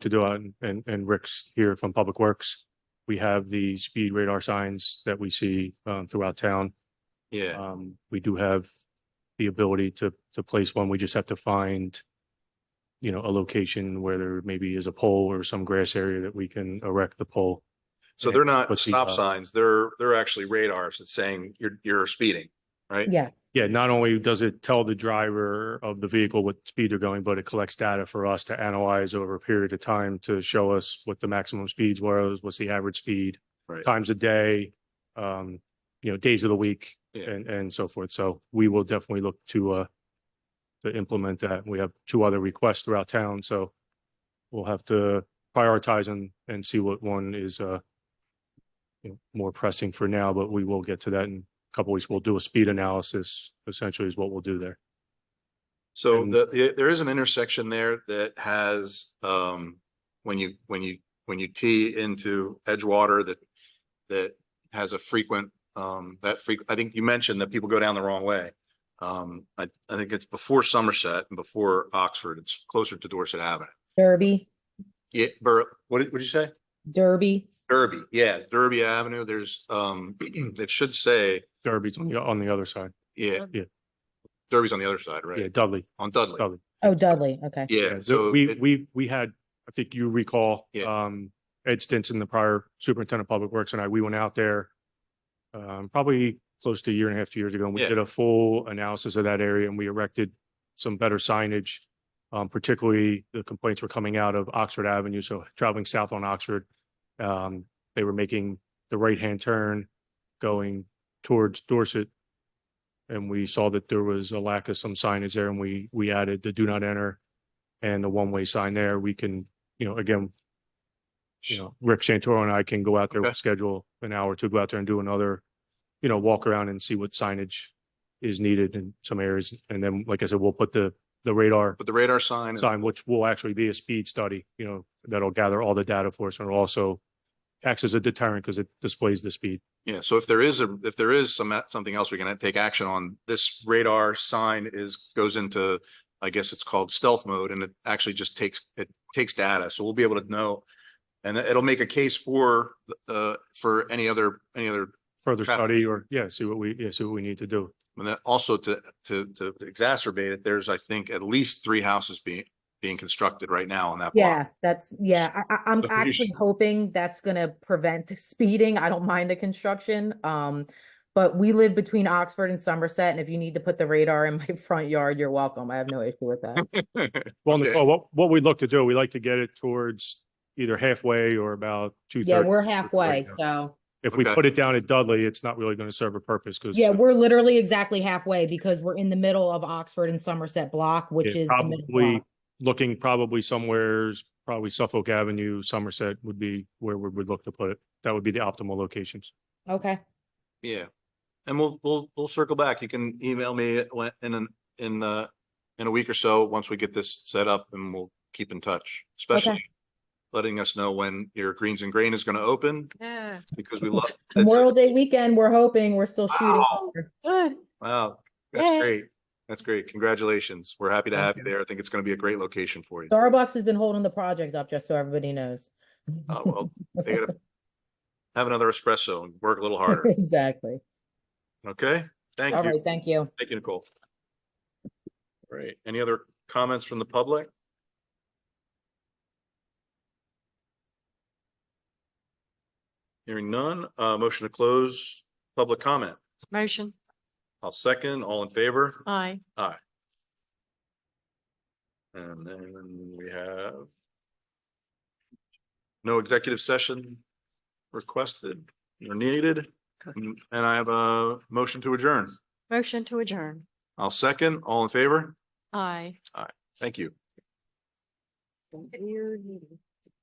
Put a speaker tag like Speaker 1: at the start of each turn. Speaker 1: to do it, and- and, and Rick's here from Public Works. We have the speed radar signs that we see, um, throughout town.
Speaker 2: Yeah,
Speaker 1: Um, we do have the ability to, to place one. We just have to find, you know, a location where there maybe is a pole or some grass area that we can erect the pole.
Speaker 2: so they're not
Speaker 1: Let's see,
Speaker 2: stop
Speaker 1: uh,
Speaker 2: signs, they're, they're actually radars that's saying you're, you're speeding, right?
Speaker 3: Yes.
Speaker 1: Yeah, not only does it tell the driver of the vehicle what speed they're going, but it collects data for us to analyze over a period of time to show us what the maximum speeds was, what's the average speed,
Speaker 2: Right.
Speaker 1: times a day, um, you know, days of the week
Speaker 2: Yeah.
Speaker 1: and, and so forth. So we will definitely look to, uh, to implement that. We have two other requests throughout town, so we'll have to prioritize and, and see what one is, uh, you know, more pressing for now, but we will get to that in a couple weeks. We'll do a speed analysis essentially is what we'll do there.
Speaker 2: So
Speaker 1: And-
Speaker 2: the, the- there is an intersection there that has, um, when you, when you, when you tee into Edgewater that, that has a frequent, um, that freq, I think you mentioned that people go down the wrong way. Um, I, I think it's before Somerset and before Oxford, it's closer to Dorset Avenue.
Speaker 3: Derby,
Speaker 2: Yeah, Bur, what did, what did you say?
Speaker 3: Derby.
Speaker 2: Derby, yeah, Derby Avenue, there's, um, it should say,
Speaker 1: Derby's on the, on the other side.
Speaker 2: yeah.
Speaker 1: Yeah.
Speaker 2: Derby's on the other side,
Speaker 1: Yeah,
Speaker 2: right?
Speaker 1: Dudley.
Speaker 2: On Dudley,
Speaker 1: Dudley.
Speaker 3: Oh, Dudley. Okay.
Speaker 2: yeah,
Speaker 1: the-
Speaker 2: so.
Speaker 1: We,
Speaker 2: it-
Speaker 1: we, we had, I think you recall,
Speaker 2: Yeah.
Speaker 1: um, Ed Stinson, the prior superintendent of public works and I, we went out there um, probably close to a year and a half, two years ago, and we
Speaker 2: Yeah.
Speaker 1: did a full analysis of that area and we erected some better signage. Um, particularly the complaints were coming out of Oxford Avenue, so traveling south on Oxford. Um, they were making the right-hand turn going towards Dorset. And we saw that there was a lack of some signage there and we, we added the do not enter and the one-way sign there. We can, you know, again, you know, Rick Santoro and I can go out there,
Speaker 2: Okay.
Speaker 1: schedule an hour to go out there and do another, you know, walk around and see what signage is needed in some areas. And then, like I said, we'll put the, the radar
Speaker 2: But the radar sign. and-
Speaker 1: sign, which will actually be a speed study, you know, that'll gather all the data for us and it'll also acts as a deterrent because it displays the speed.
Speaker 2: Yeah, so if there is a, if there is some, something else we can take action on, this radar sign is, goes into, I guess it's called stealth mode and it actually just takes, it takes data, so we'll be able to know. And it'll make a case for, uh, for any other, any other
Speaker 1: Further
Speaker 2: Traffic.
Speaker 1: study or, yeah, see what we, yeah, see what we need to do.
Speaker 2: And then also to, to, to exacerbate it, there's, I think, at least three houses being, being constructed right now on that block.
Speaker 3: Yeah, that's, yeah, I, I, I'm
Speaker 2: So pretty
Speaker 3: actually hoping that's gonna prevent speeding. I don't mind the construction. Um, but we live between Oxford and Somerset, and if you need to put the radar in my front yard, you're welcome. I have no issue with that.
Speaker 1: Well,
Speaker 2: Okay.
Speaker 1: Nicole, what, what we'd look to do, we like to get it towards either halfway or about two
Speaker 3: Yeah,
Speaker 1: thirty.
Speaker 3: we're halfway, so.
Speaker 1: If we
Speaker 2: Okay.
Speaker 1: put it down at Dudley, it's not really going to serve a purpose because
Speaker 3: Yeah, we're literally exactly halfway because we're in the middle of Oxford and Somerset block, which
Speaker 1: Yeah,
Speaker 3: is. the middle
Speaker 1: probably-
Speaker 3: block.
Speaker 1: looking probably somewheres, probably Suffolk Avenue, Somerset would be where we would look to put it. That would be the optimal locations.
Speaker 3: Okay,
Speaker 2: Yeah. And we'll, we'll, we'll circle back. You can email me when- in, an- in, uh, in a week or so, once we get this set up and we'll keep in touch, especially letting us know when your Greens and Grain is going to open
Speaker 4: Yeah,
Speaker 2: because we love. that's it.
Speaker 3: Memorial Day weekend, we're hoping, we're still shooting.
Speaker 2: Wow.
Speaker 4: good.
Speaker 2: Wow, that's
Speaker 4: Yay.
Speaker 2: great. That's great. Congratulations. We're happy to
Speaker 3: Thank
Speaker 2: have you
Speaker 3: you.
Speaker 2: there. I think it's going to be a great location for you.
Speaker 3: Starbucks has been holding the project up, just so everybody knows.
Speaker 2: Uh, well, They gotta Have another espresso and work a little harder.
Speaker 3: Exactly.
Speaker 2: Okay? Thank
Speaker 3: All
Speaker 2: you.
Speaker 3: right, thank you.
Speaker 2: Thank you, Nicole. All right, any other comments from the public? Hearing none, uh, motion to close public comment.
Speaker 4: Motion,
Speaker 2: I'll second, all in favor?
Speaker 4: aye.
Speaker 2: And then we have no executive session requested or needed. And I have a motion to adjourn.
Speaker 4: Motion to adjourn,
Speaker 2: I'll second, all in favor?
Speaker 4: aye.
Speaker 2: Thank you.
Speaker 4: Your meeting.